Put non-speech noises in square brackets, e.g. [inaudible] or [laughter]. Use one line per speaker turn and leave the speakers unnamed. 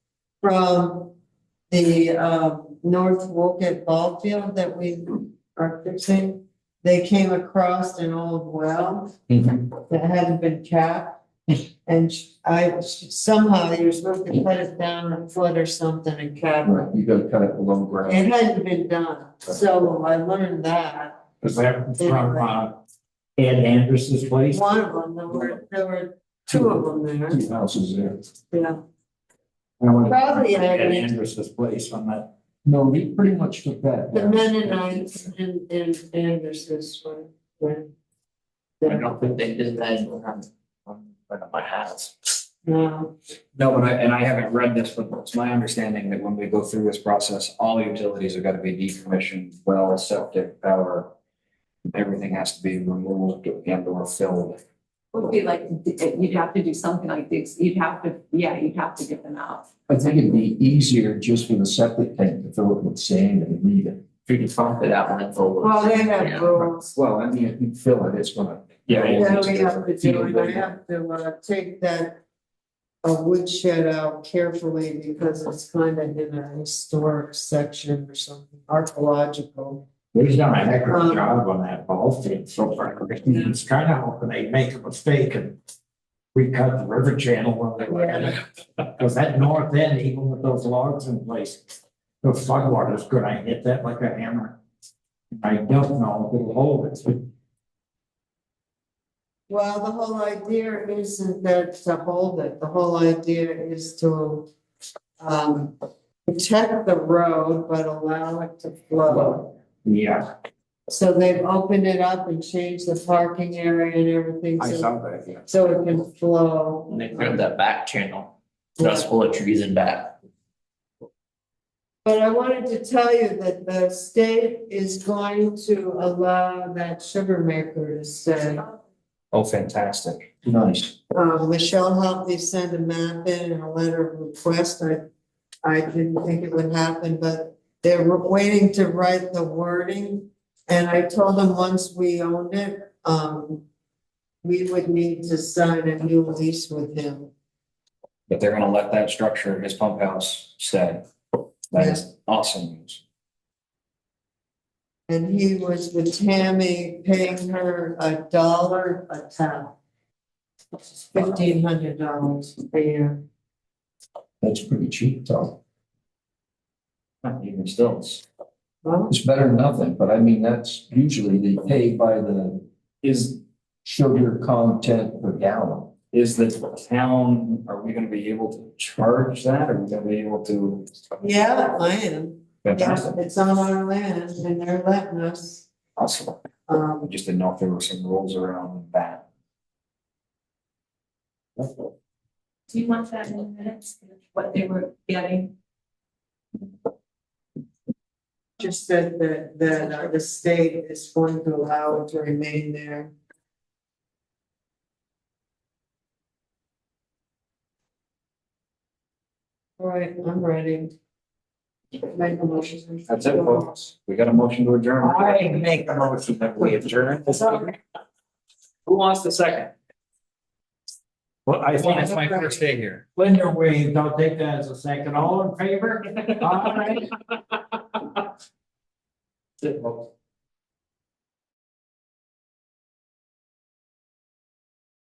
from the, uh, North Woket Ball Field that we are fixing. They came across an old well that hadn't been capped. And sh- I, somehow you're supposed to cut it down a foot or something and cap it.
You gotta cut it below ground.
It hadn't been done, so I learned that.
Is that from, uh, Ed Anderson's place?
One of them, there were, there were two of them there,
Two houses there.
yeah.
I went to
Probably Ed
Ed
Anderson.
Anderson's place on that.
No, he pretty much took that.
The
down.
Mennonites and, and Anderson's were, were.
I don't think they did that in front of my house.
No,
No, but I, and I haven't read this, but it's my understanding that when we go through this process, all utilities are gonna be decommissioned, well, septic, power. Everything has to be removed and or filled.
Would be like, you'd have to do something like this, you'd have to, yeah, you'd have to get them out.
I think it'd be easier just for the septic tank to fill it with sand and leave it.
If you can pump it out and forward.
well, they have rules.
Well, I mean, if you fill it, it's gonna.
Yeah, we have to do, and I have to, uh, take that. A woodshed out carefully because it's kind of in a historic section or something, archaeological.
He's done a heck of
Um,
a job on that ball field so far. It's kind of hoping they make a mistake and we cut the river channel when they were at it. Because that north end, even with those logs in place, the floodwater's gonna hit that like a hammer. I don't know if it'll hold it.
Well, the whole idea isn't that to hold it, the whole idea is to. Um, protect the road, but allow it to flow.
Yeah,
So they've opened it up and changed the parking area and everything,
I
so,
saw that, yeah.
so it can flow.
And they cleared that back channel. That's full of trees and back.
But I wanted to tell you that the state is going to allow that sugar maker to stay.
Oh, fantastic.
Nice.
Uh, Michelle helped me send a map in and a letter of request. I, I didn't think it would happen, but they're waiting to write the wording. And I told them once we owned it, um, we would need to sign a new lease with him.
But they're gonna let that structure, his pump house stay. That is awesome news.
And he was with Tammy, paying her a dollar a ton. Fifteen hundred dollars a year.
That's pretty cheap, Tom.
Not Even still, it's-
Well,
It's better than nothing, but I mean, that's usually they pay by the
is,
sugar content per gallon.
is the town, are we gonna be able to charge that? Are we gonna be able to?
yeah, I am. Yeah,
Fantastic,
it's on our land and they're letting us,
awesome. I
um,
just didn't know if there were some rules around that.
Do you want that in the minutes, what they were getting?
just said that, that uh, the state is going to allow it to remain there. All right, I'm ready. Make a motion.
That's it, folks. We got a motion to adjourn.
I make a motion that we adjourn.
Who wants the second?
Well, I think
my first
day here.
Linda waved, I'll take that as a [laughs] second. All in favor? All right.
That's it, folks.